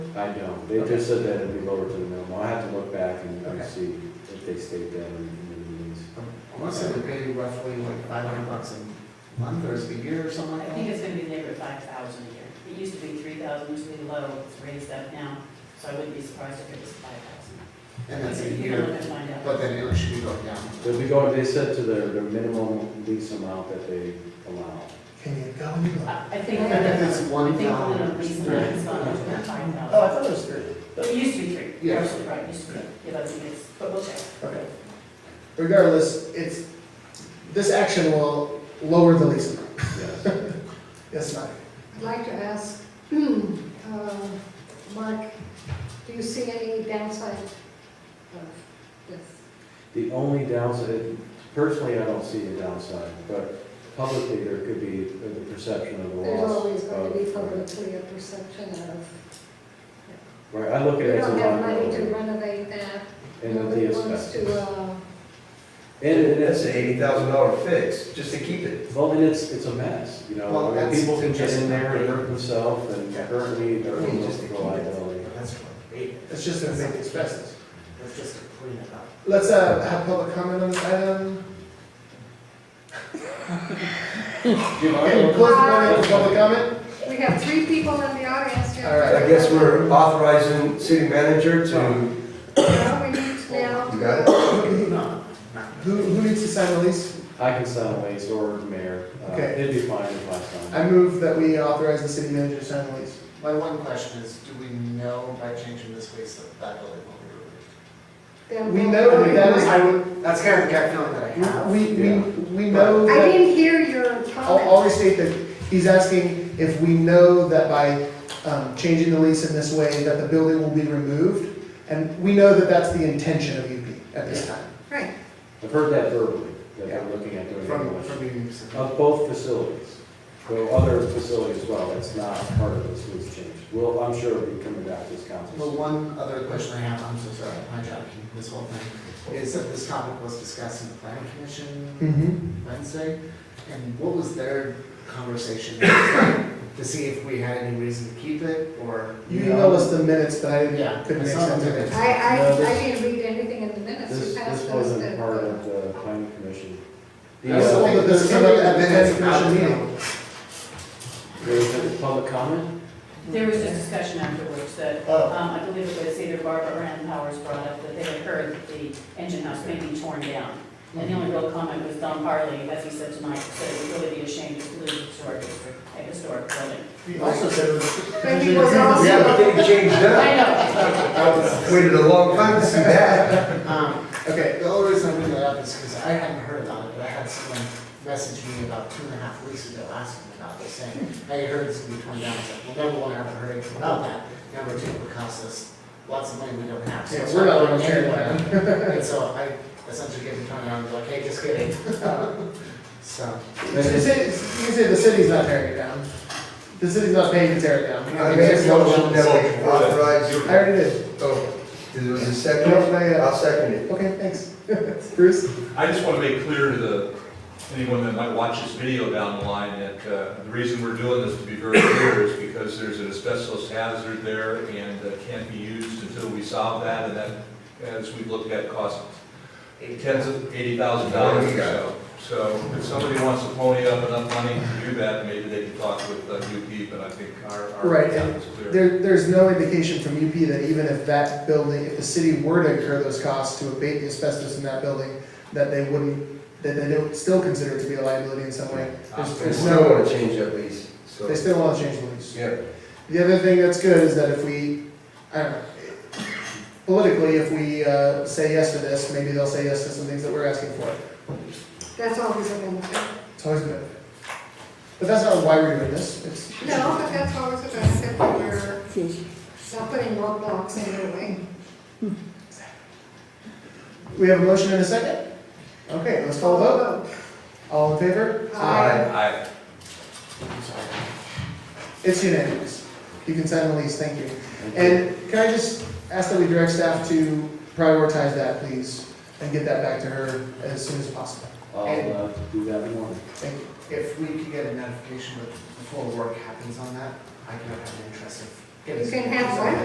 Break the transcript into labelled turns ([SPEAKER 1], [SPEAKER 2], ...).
[SPEAKER 1] I don't, they
[SPEAKER 2] Okay.
[SPEAKER 1] just said that it'd be lower to the minimum, I have to look back and and
[SPEAKER 2] Okay.
[SPEAKER 1] see if they state that in in the meetings.
[SPEAKER 2] I want to say we pay roughly like five hundred bucks a month or a year or something
[SPEAKER 3] I
[SPEAKER 2] like
[SPEAKER 3] think
[SPEAKER 2] that.
[SPEAKER 3] it's gonna be neighbor five thousand a year. It used to be three thousand, used to be low, it's raised up now, so I wouldn't be surprised if it was five thousand.
[SPEAKER 2] And that's a
[SPEAKER 3] You're not
[SPEAKER 2] year,
[SPEAKER 3] gonna find out.
[SPEAKER 2] but then it should be going down.
[SPEAKER 1] They'll be going, they said to their, their minimum lease amount that they allow.
[SPEAKER 4] Can you go any lower?
[SPEAKER 3] I I think.
[SPEAKER 2] I think it's one
[SPEAKER 3] I think
[SPEAKER 2] dollar.
[SPEAKER 3] the reason that it's not under five
[SPEAKER 4] Oh, I
[SPEAKER 3] thousand.
[SPEAKER 4] thought it was three.
[SPEAKER 3] But it used to be three.
[SPEAKER 2] Yeah.
[SPEAKER 3] Absolutely Right, it used to be, yeah, that's, it's, but we'll check.
[SPEAKER 4] Okay. Regardless, it's, this action will lower the lease amount.
[SPEAKER 1] Yes,
[SPEAKER 4] Yes, Mike?
[SPEAKER 5] I'd like to ask, uh, Mark, do you see any downside of this?
[SPEAKER 1] the only downside, personally, I don't see a downside, but publicly, there could be the perception of a loss.
[SPEAKER 5] There's always going to be
[SPEAKER 1] of-
[SPEAKER 5] publicly a perception of,
[SPEAKER 1] Right, I look at
[SPEAKER 5] we
[SPEAKER 1] it as a
[SPEAKER 5] don't have money to
[SPEAKER 1] liability.
[SPEAKER 5] renovate that.
[SPEAKER 1] And the
[SPEAKER 5] Nobody wants
[SPEAKER 1] DSS.
[SPEAKER 5] to, uh,
[SPEAKER 1] And it- and
[SPEAKER 6] That's
[SPEAKER 1] it's,
[SPEAKER 6] an eighty thousand dollar fix, just to keep it.
[SPEAKER 1] well, and it's, it's a mess, you know,
[SPEAKER 2] Well,
[SPEAKER 1] I mean,
[SPEAKER 2] that's-
[SPEAKER 1] people can get
[SPEAKER 2] that's-
[SPEAKER 1] in there and hurt themselves and
[SPEAKER 2] Yeah.
[SPEAKER 1] hurt me, they're
[SPEAKER 2] I mean, just to
[SPEAKER 1] a
[SPEAKER 2] keep it.
[SPEAKER 1] liability.
[SPEAKER 2] That's great.
[SPEAKER 4] It's just gonna make the expenses.
[SPEAKER 2] That's just to clean it up.
[SPEAKER 4] Let's, uh, have public comment on this item. Any closing comment or public comment?
[SPEAKER 5] we have three people in the audience here.
[SPEAKER 4] All right,
[SPEAKER 6] I guess we're authorizing city manager to,
[SPEAKER 5] Well, we need to now.
[SPEAKER 6] You got it?
[SPEAKER 4] Who, who needs to sign the lease?
[SPEAKER 1] I can sign a lease or the mayor, uh,
[SPEAKER 4] Okay.
[SPEAKER 1] it'd be fine if I signed.
[SPEAKER 4] I move that we authorize the city manager to sign the lease.
[SPEAKER 2] My one question is, do we know by changing this lease that that building will be removed?
[SPEAKER 5] Then
[SPEAKER 4] We
[SPEAKER 5] we'll-
[SPEAKER 4] know that that
[SPEAKER 2] I
[SPEAKER 4] is,
[SPEAKER 2] would, that's kind of the gut feeling that I have.
[SPEAKER 4] we, we,
[SPEAKER 1] Yeah.
[SPEAKER 4] we know
[SPEAKER 5] I
[SPEAKER 4] that,
[SPEAKER 5] didn't hear your
[SPEAKER 4] I'll,
[SPEAKER 5] comment.
[SPEAKER 4] I'll restate that, he's asking if we know that by, um, changing the lease in this way, that the building will be removed. And we know that that's the intention of UP at this time.
[SPEAKER 5] Right,
[SPEAKER 1] I've heard that verbally, that
[SPEAKER 4] Yeah.
[SPEAKER 1] they're looking at doing
[SPEAKER 2] From,
[SPEAKER 1] demolition
[SPEAKER 2] from being used.
[SPEAKER 1] of both facilities. So other facilities as well, it's not part of this lease change. Well, I'm sure it'll be coming back to this
[SPEAKER 2] The
[SPEAKER 1] council.
[SPEAKER 2] one other question I have, I'm so sorry, my job, this whole thing, is that this topic was discussed in the planning commission
[SPEAKER 4] Mm-hmm.
[SPEAKER 2] Wednesday, and what was their conversation? To see if we had any reason to keep it, or?
[SPEAKER 4] You emailed us the minutes, but I
[SPEAKER 2] Yeah.
[SPEAKER 4] didn't- couldn't
[SPEAKER 2] I
[SPEAKER 4] make
[SPEAKER 2] saw the
[SPEAKER 4] sense of it.
[SPEAKER 2] minutes.
[SPEAKER 5] I, I,
[SPEAKER 1] No, this-
[SPEAKER 5] I didn't read anything in the minutes.
[SPEAKER 1] This,
[SPEAKER 5] You passed
[SPEAKER 1] this
[SPEAKER 5] us
[SPEAKER 1] wasn't
[SPEAKER 5] the-
[SPEAKER 1] part of the planning commission. The,
[SPEAKER 4] That's the
[SPEAKER 1] uh,
[SPEAKER 4] one that this came up at the planning commission meeting.
[SPEAKER 1] there was a public comment?
[SPEAKER 3] There was a discussion afterwards that,
[SPEAKER 4] Oh.
[SPEAKER 3] um, I believe it was either Barbara or Ann Powers brought up that they had heard that the engine house may be torn down. And the only real comment was Don Harley, as he said tonight, said it would really be a shame to lose it to our district, a historic building.
[SPEAKER 4] He also said it was.
[SPEAKER 5] But he was also-
[SPEAKER 6] we have to get changed
[SPEAKER 3] I
[SPEAKER 6] up.
[SPEAKER 3] know.
[SPEAKER 6] Waited a long time to see that.
[SPEAKER 2] Um,
[SPEAKER 4] Okay,
[SPEAKER 2] The only reason I bring that up is because I hadn't heard about it, but I had someone message me about two and a half weeks ago asking about this, saying, hey, I heard it's gonna be torn down, I was like, well, number one, I haven't heard anything about that, number two, it costs us lots of money we don't have, so
[SPEAKER 4] Yeah,
[SPEAKER 2] it's
[SPEAKER 4] we're
[SPEAKER 2] not
[SPEAKER 4] not
[SPEAKER 2] going
[SPEAKER 4] gonna carry
[SPEAKER 2] anywhere. And so I essentially gave it to her, and I was like, hey, just kidding. So,
[SPEAKER 4] You can say, you can say the city's not tearing it down. The city's not paying to tear it down.
[SPEAKER 6] I made a motion that we authorize
[SPEAKER 4] I
[SPEAKER 6] your,
[SPEAKER 4] already did.
[SPEAKER 6] oh, there was a
[SPEAKER 4] No,
[SPEAKER 6] second,
[SPEAKER 4] not yet.
[SPEAKER 6] I'll second it.
[SPEAKER 4] uh, Okay, thanks. Bruce?
[SPEAKER 7] I just want to make clear to the, anyone that might watch this video down the line, that uh, the reason we're doing this, to be very clear, is because there's an asbestos hazard there and uh, can't be used until we solve that, and that, as we've looked at, costs tens of eighty thousand dollars or so. So if somebody wants to pony up enough money to do that, maybe they can talk with uh, UP, but I think our, our
[SPEAKER 4] Right,
[SPEAKER 7] town
[SPEAKER 4] and
[SPEAKER 7] is clear.
[SPEAKER 4] There, there's no indication from UP that even if that building, if the city were to incur those costs to abate the asbestos in that building, that they wouldn't, that they don't still consider it to be a liability in some way. There's,
[SPEAKER 6] We
[SPEAKER 4] there's
[SPEAKER 6] still
[SPEAKER 4] no,
[SPEAKER 6] wanna change that lease, so.
[SPEAKER 4] they still wanna change the lease.
[SPEAKER 6] Yeah,
[SPEAKER 4] The other thing that's good is that if we, I don't know, politically, if we, uh, say yes to this, maybe they'll say yes to some things that we're asking for.
[SPEAKER 5] That's always a benefit.
[SPEAKER 4] It's always good. But that's not why we're doing this, it's.
[SPEAKER 5] No, but that's always a benefit when you're not putting roadblocks in your way.
[SPEAKER 4] We have a motion and a second? Okay, let's call a vote. All in favor?
[SPEAKER 5] Aye.
[SPEAKER 7] I-
[SPEAKER 2] I'm sorry.
[SPEAKER 4] It's unanimous. You can sign the lease, thank you.
[SPEAKER 1] Thank you.
[SPEAKER 4] And can I just ask that we direct staff to prioritize that, please, and get that back to her as soon as possible?
[SPEAKER 1] I'll uh, do that in the morning.
[SPEAKER 4] Thank you.
[SPEAKER 2] If we could get a notification bef- before work happens on that, I could have an interest of getting.
[SPEAKER 5] You can have one.